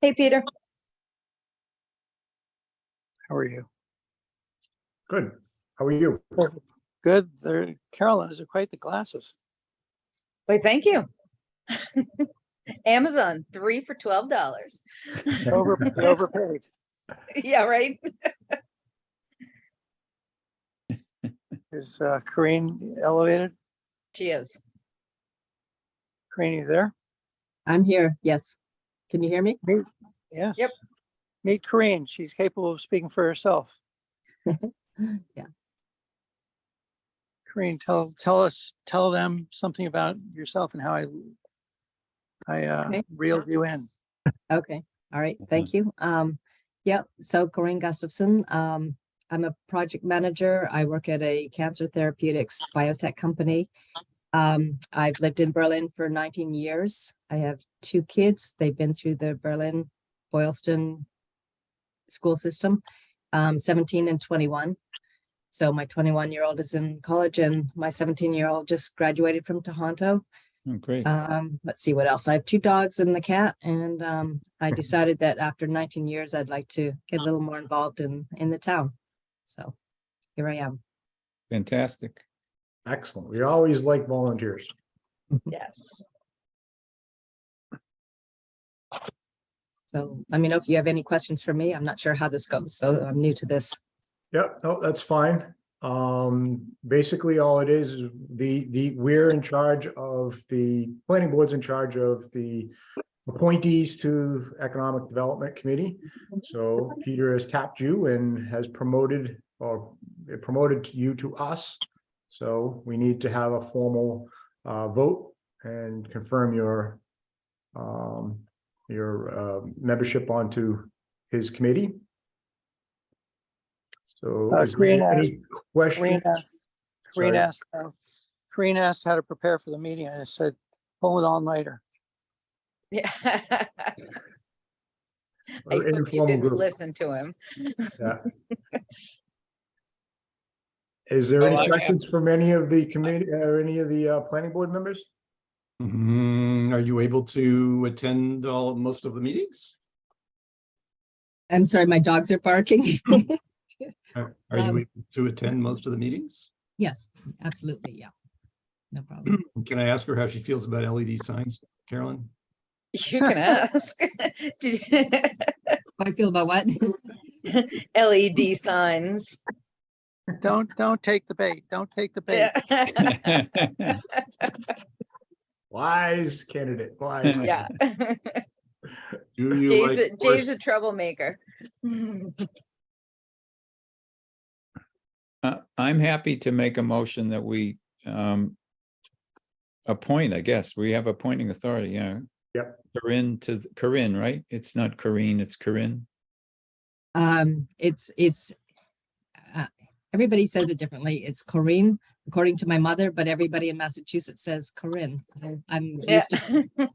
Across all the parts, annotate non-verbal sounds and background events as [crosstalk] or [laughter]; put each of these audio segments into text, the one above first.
Hey, Peter. How are you? Good. How are you? Good. There, Carolyn, those are quite the [laughs] glasses. Wait, thank you. [laughs] Amazon, three for twelve dollars. [laughs] Over, overpaid. Yeah, right? Is uh, Corinne elevated? She is. Corinne, you there? I'm here, yes. Can you hear me? Yes. Meet Corinne. She's capable of speaking for herself. Yeah, Corinne, tell, tell us, tell them something about yourself and how I, I uh, Okay. reeled you in. okay, all right, thank you. Um, yeah, so Corinne Gustafson, um, I'm a project manager. I work at a cancer therapeutics biotech company. Um, I've lived in Berlin for nineteen years. I have two kids. They've been through the Berlin Boylston school system, um, seventeen and twenty-one. So my twenty-one-year-old is in college and my seventeen-year-old just graduated from Tohoto. Oh, great. Um, let's see what else. I have two dogs and the cat, and um, I decided that after 19 years, I'd like to get a little more involved in in the town. So here I am. Fantastic. Excellent. We always like volunteers. Yes. So let me know if you have any questions for me. I'm not sure how this goes, so I'm new to this. Yep, no, that's fine. Um, basically, all it is, is the, the, we're in charge of the, planning board's in charge of the appointees to Economic Development Committee. So Peter has tapped you and has promoted or promoted you to us. So we need to have a formal, uh, vote and confirm your, um, your, uh, membership onto his committee. So Uh, is there Corinne, any questions? Corinne, Corinne Sorry. asked, uh, Corinne asked how to prepare for the meeting. and I said, pull it all [laughs] nighter. Yeah. [laughs] I Or hope you informal didn't group. Listen to [laughs] him. Is there Oh, any I- questions from any of the committee, or any of the uh, planning board members? Mhm. Are you able to attend all, most of the meetings? I'm sorry, my dogs are barking. [laughs] Are are you Um, able to attend most of the meetings? yes, absolutely. Yeah, no problem. Can I ask her how she feels about LED signs, Carolyn? You can ask. [laughs] Did you- How I feel about what? [laughs] [laughs] LED signs. Don't, don't take the bait. Don't take the bait. Yeah. [laughs] Wise candidate, wise. Yeah. Yeah. [laughs] Do [laughs] you Jay's, a- like Jay's horse- a troublemaker. Uh, I'm happy to make a motion that we um appoint, I guess. We have appointing authority, yeah. Yep. Corinne to, th- Corinne, right? It's not Corinne, it's Corinne. Um, it's, it's, uh, everybody says it differently. It's Corinne, according to my mother, but everybody in Massachusetts says Corinne. So I'm Yeah. used to,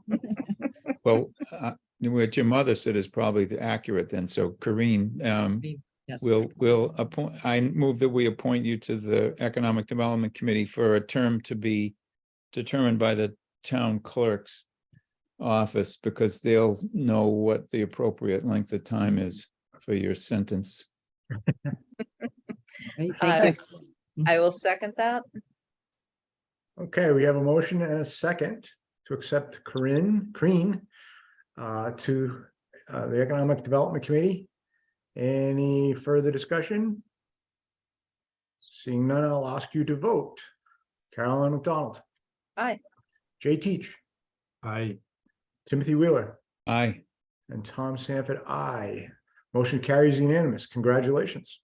Well, [laughs] uh, what your mother said is probably the accurate then. So Corinne, um, yes. we'll, we'll appoint, I move that we appoint you to the Economic Development Committee for a term to be determined by the town clerk's office because they'll know what the appropriate length of time is for your sentence. Right, Uh, thank you. [laughs] I will second that. Okay, we have a motion and a second to accept Corinne, Crean uh, to uh, the Economic Development Committee. Any further discussion? Seeing none, I'll ask you to vote. Carolyn McDonald. Aye. Jay Teach, I, [laughs] Timothy Wheeler, Aye. and Tom Sanford, aye. Motion carries unanimous. Congratulations.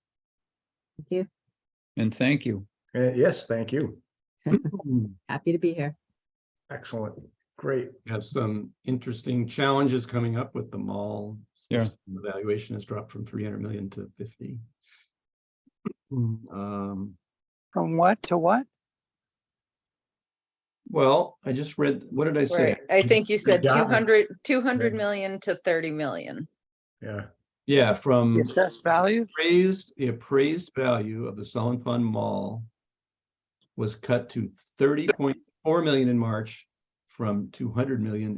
Thank you. And thank you. Uh, Yes, thank you. Happy to be here. Excellent. Great. have some interesting challenges coming up with the mall. Yeah. especially when The valuation has dropped from three hundred million to fifty. Um, From what to what? well, I just read, what did I say? Right. I think you said Yeah. 200, 200 Right. million to 30 million. Yeah. Yeah, from. The Mm. assessed value? appraised, the appraised value of the Solon Fund Mall was cut to thirty point four million in March from two hundred million